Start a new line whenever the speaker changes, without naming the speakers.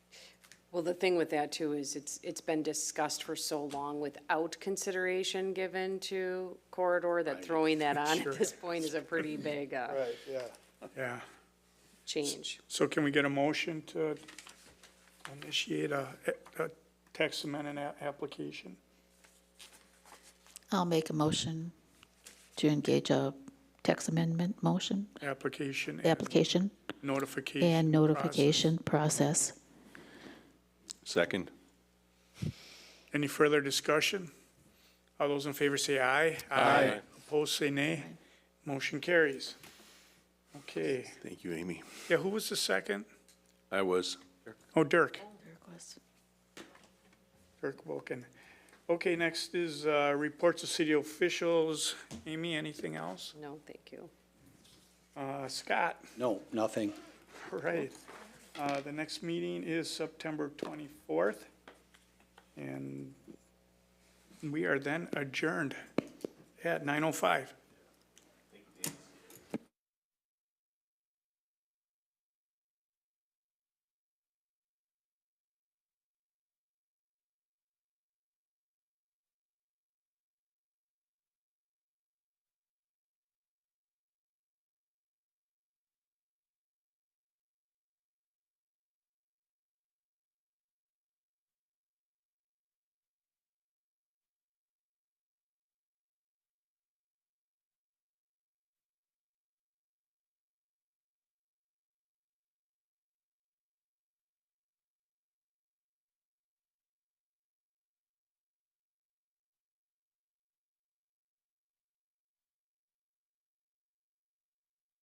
Well, the thing with that too is it's, it's been discussed for so long without consideration given to corridor that throwing that on at this point is a pretty big, uh,
Right, yeah.
Yeah,
change.
so can we get a motion to initiate a, a tax amendment a- application?
I'll make a motion to engage a text amendment motion,
Application and
application,
notification.
and
process.
notification process.
Second.
Any further discussion? All those in favor say aye. Aye. Opposed, say nay. Motion carries. Okay,
Thank you, Amy.
yeah, who was the second?
I was.
Oh, Dirk, Dirk Wilken. Okay, next is, uh, reports of city officials. Amy, anything else?
No, thank you.
Uh, Scott?
No, nothing.
All Right. Uh, The next meeting is September 24th, and we are then adjourned at 9:05.